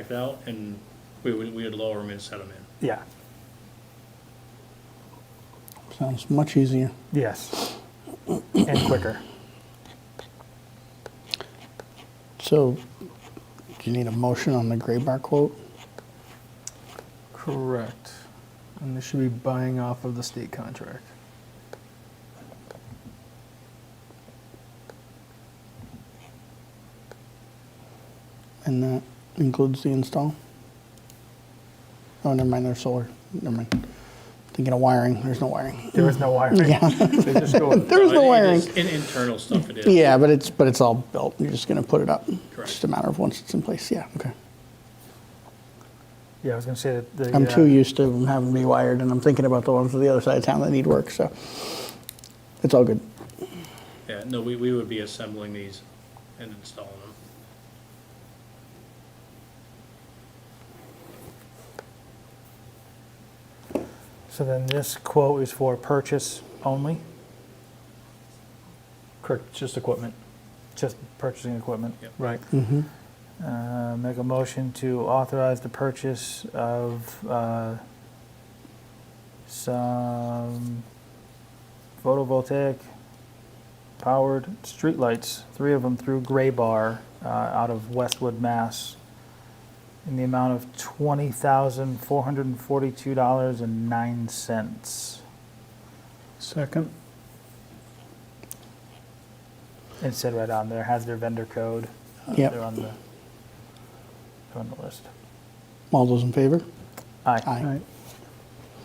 checked out, and we would, we would lower them and set them in. Yeah, Sounds much easier. yes. And quicker. So, do you need a motion on the gray bar quote? Correct. And they should be buying off of the state contract. And that includes the install? Oh, never mind, there's solar. Never mind. Thinking of wiring, there's no wiring. There was no wiring. Yeah, They just go with- there was no It wiring. is In internal stuff it is. Yeah, but it's, but it's all built. You're just gonna put it up. It's Just Correct. a matter of once it's in place, yeah, okay. Yeah, I was gonna say that the. I'm uh, too used to them having to be wired and I'm thinking about the ones on the other side of town that need work, so it's all good. Yeah, no, we, we would be assembling these and installing them. So then this quote is for purchase only? Correct, just equipment. Just purchasing equipment? Yep. Right. Mhm. Uh, Make a motion to authorize the purchase of uh, some photovoltaic powered streetlights, three of them through Gray Bar uh, out of Westwood, Mass, in the amount of $20,442.09. Second. It said right on there, has their vendor code. Uh, Yep. They're on the, they're on the list. All those in favor? Aye. Aye.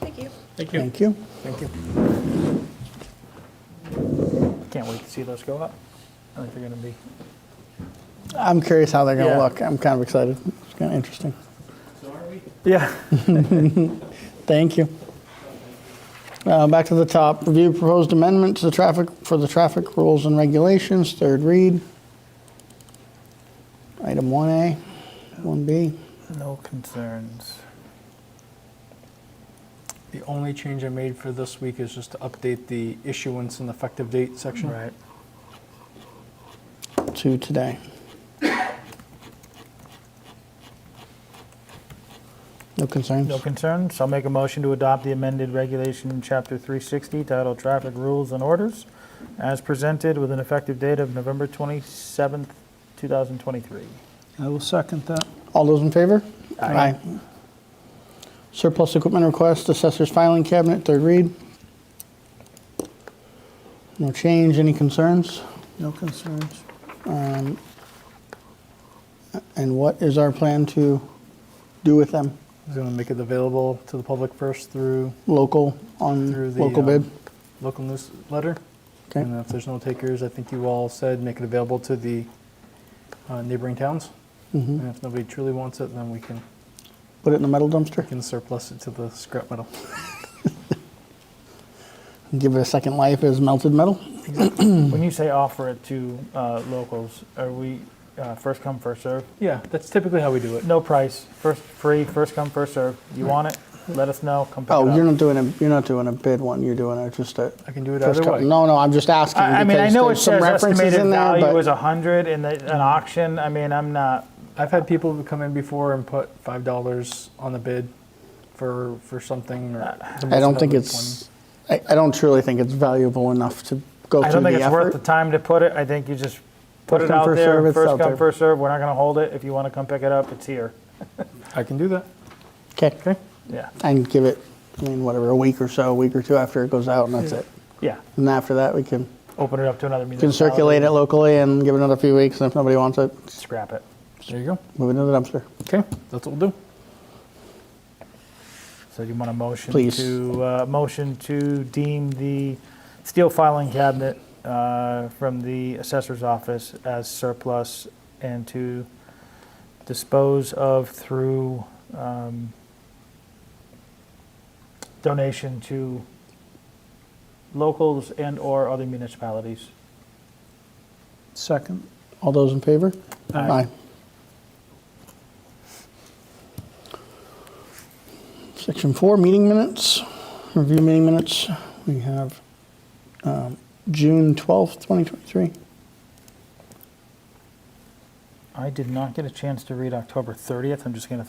Thank you. Thank you. Thank you. Thank you. Can't wait to see those go up. I think they're gonna be, I'm curious how they're gonna Yeah. look. I'm kind of excited. It's kind of interesting. yeah. Thank you. Uh, Back to the top, review proposed amendment to the traffic, for the traffic rules and regulations, third read. Item 1A, 1B. No concerns. The only change I made for this week is just to update the issuance and effective date section. Right. to today. No concerns? No concerns. I'll make a motion to adopt the amended regulation, Chapter 360, titled Traffic Rules and Orders, as presented with an effective date of November 27th, 2023. I will second that. All those in favor? Aye. Surplus equipment request, assessor's filing cabinet, third read. No change, any concerns? Um, No concerns. And what is our plan to do with them? I was going to make it available to the public first through Local, Through on the, local bid? um, local newsletter. Okay. And if there's no takers, I think you all said make it available to the uh, neighboring towns. Mhm. Mm-hmm. And if nobody truly wants it, then we can, Put it in the metal dumpster? can surplus it to the scrap metal. Give it a second life as melted metal? Hmm. When you say offer it to uh, locals, are we uh, first come, first serve? Yeah, that's typically how we do it. No price, first free, first come, first serve. You want it? Let us know. Come pick it Oh, up. you're not doing a, you're not doing a bid one, you're doing a, just a. I can do it first either cut. way. No, no, I'm just asking. I, I mean, I because know it there's some says references estimated in there, value but- is a hundred and the, an auction. I mean, I'm not. I've had people who come in before and put five dollars on the bid for for something. Or the I most don't think amount was it's, I, I don't truly think it's valuable enough to go I through don't the think it's worth the effort. time to put it. I think you just put First it come, out first there. serve, it's first out come, there. first serve. We're not going to hold it. If you want to come pick it up, it's here. 20. I can do that. Okay, Yeah, and give it, I mean, whatever, a week or so, a week or two after it goes out and that's it. yeah. And after that, we can, Open it up to another we can municipality. circulate it locally and give it another few weeks and if nobody wants it, Scrap it. There you go. move it to the dumpster. Okay, that's what we'll do. So do you want a motion Please. to, uh, motion to deem the steel filing cabinet uh, from the assessor's office as surplus and to dispose of through um, donation to locals and/or other municipalities. Second. All those in favor? Aye. Section four, meeting minutes, review meeting minutes. We have um, June 12th, 2023. I did not get a chance to read October 30th. I'm just going to